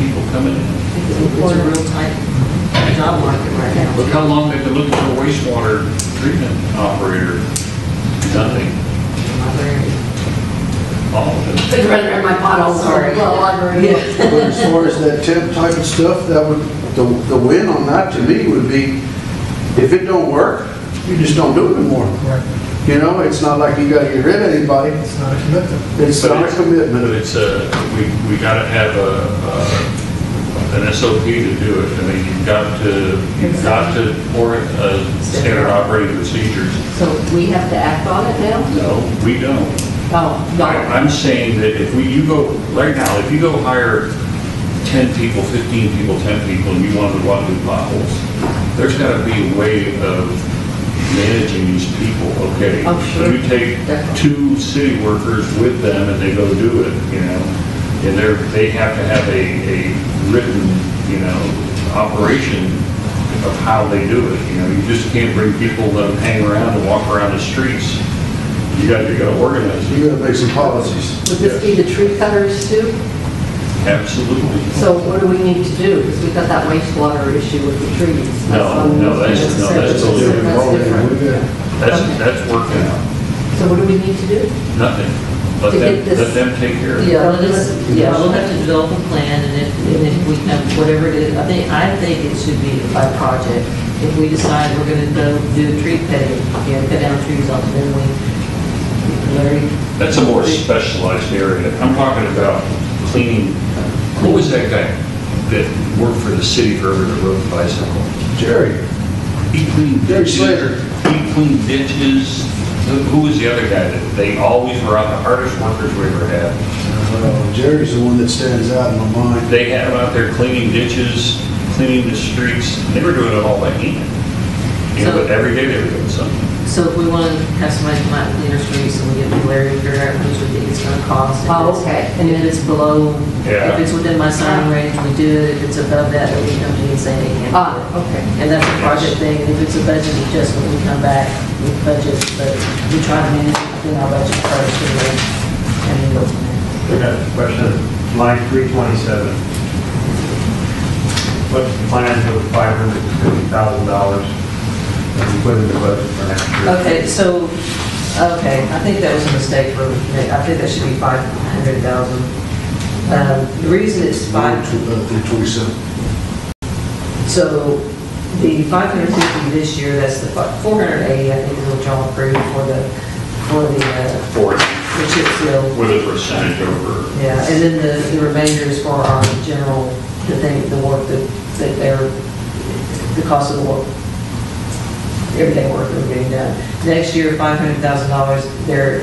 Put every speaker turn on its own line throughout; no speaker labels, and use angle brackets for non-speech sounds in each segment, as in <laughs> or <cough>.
people coming in.
It's a real tight job market right now.
Look how long they've been looking for a wastewater treatment operator. Nothing. All of it.
It's running around my potholes, sorry. Yeah.
But as far as that temp type of stuff, that would, the, the win on that to me would be, if it don't work, you just don't do it anymore.
Right,
You know, it's not like you gotta get rid of anybody,
it's not a commitment.
it's
But
not a
it's-
commitment.
But it's a, we, we gotta have a, a- an SOP to do it. I mean, you've got to, you've got to, or uh, standard operating procedures.
So we have to act on it now?
No, we don't.
Oh,
I-
no.
I'm saying that if we, you go, right now, if you go hire 10 people, 15 people, 10 people, and you want to go out and do potholes, there's got to be a way of managing these people, okay?
Oh,
So
sure.
You take
Definitely.
two city workers with them and they go do it, you know? And they're, they have to have a, a written, you know, operation of how they do it, you know? You just can't bring people, let them hang around and walk around the streets. You got, you got to organize it.
You gotta make some policies.
Would this be the tree cutters too?
Absolutely.
So what do we need to do? Because we've got that wastewater issue with the trees.
No,
That's
no,
on-
that's- no, that's
separate.
totally
different.
different.
Yeah.
That's,
um,
that's working out.
So what do we need to do?
Nothing. Let
To
them,
get this-
let them take care of it.
Yeah, we'll just, yeah, we'll have to develop a plan, and if, and if we have, whatever it is, I think, I think it should be by project. If we decide we're gonna go do tree cutting, you know, cut down trees off, then we, Larry,
That's a more specialized area. I'm talking about cleaning, what was that guy that worked for the city for every road bicycle?
Jerry,
He cleaned
Jerry
ditches.
Slater.
He cleaned ditches. Who- Who was the other guy that, they always were out, the hardest workers we ever had.
uh, Jerry's the one that stands out in my mind.
They had them out there cleaning ditches, cleaning the streets, and they were doing it all by hand. You know,
So-
but every day they were doing something.
so if we wanna have somebody come out and clean our streets, and we get with Larry, figure out how much we think it's gonna cost. if
Oh,
it's-
okay.
And if it's below,
Yeah.
if it's within my sign range, we do it, if it's above that, then we come to you and say, hey, can
Ah, okay.
And that's a project thing, and if it's a budget adjustment, we come back with budgets, but we try to manage it within our budget first, and then, and then go from there.
I got a question, line 327. What's the plan for the $550,000 that we put in the budget for next year?
Okay, so, okay, I think that was a mistake for, I think that should be five hundred thousand. Um, the reason it's five,
Three uh, twenty-seven.
so the five hundred fifty this year, that's the four hundred eighty, I think, is what y'all approved for the, for the, uh,
for it
the chip seal.
with a percentage over.
Yeah, and then the, the remainder is for our general, the thing, the work that, that they're, the cost of the work, everyday work that we're getting done. Next year, five hundred thousand dollars, there,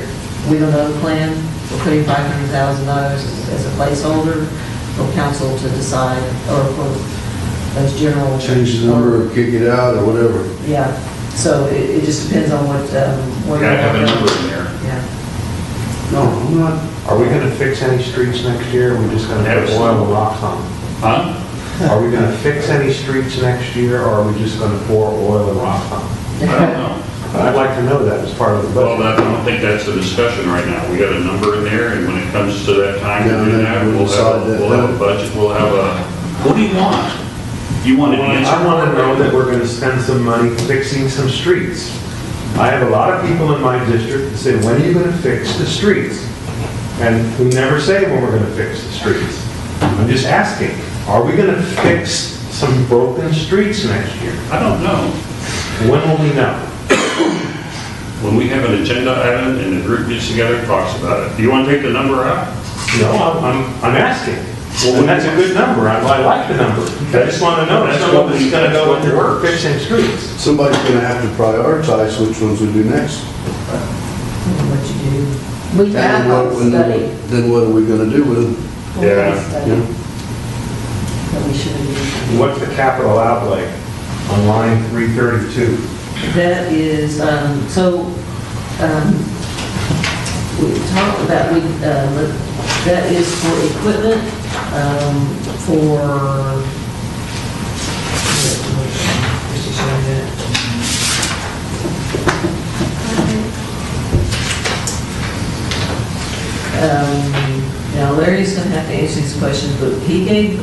we don't know the plan, we're putting five hundred thousand dollars as a placeholder for council to decide, or for those general.
Change the number, or kick it out, or whatever.
Yeah, so it, it just depends on what, um, what.
Gotta have a number in there.
Yeah,
No, I'm not,
Are we going to fix any streets next year, or are we just going to put oil and rocks on? them?
Huh?
Are we going to fix any streets next year, or are we just going to pour oil and rocks on? them?
I don't
<laughs>
know.
I'd like to know that as part of the
Well,
budget.
that- I don't think that's a discussion right now. We got a number in there, and when it comes to that time
Yeah,
to do
then
that,
we
we'll have,
decide
a-
that-
we'll have a budget, we'll have a, what do you want? You want an answer?
I want to know that we're going to spend some money fixing some streets. I have a lot of people in my district that say, when are you going to fix the streets? And we never say when we're going to fix the streets. I'm just asking, are we going to fix some broken streets next year?
I don't know.
When will we know?
When we have an agenda item and the group gets together and talks about it, do you want to take the number out?
No, I'm, I'm I'm asking. Well, that's a good number, I I like the number. I just want to know, that's
That's
what
what
we
we-
going
that's
to go
what
into work,
works.
fixing streets.
somebody's gonna have to prioritize which ones we do next.
what you do.
We
And
have
what-
a
and
study.
Then what are we gonna do with them?
Yeah.
you
Study
know?
That we should have.
What's the capital outlay on line 332?
That is, um, so, um, we talked about, we, uh, look- that is for equipment, um, for, where's it showing that? Um, Now Larry's gonna have to answer these questions, but he gave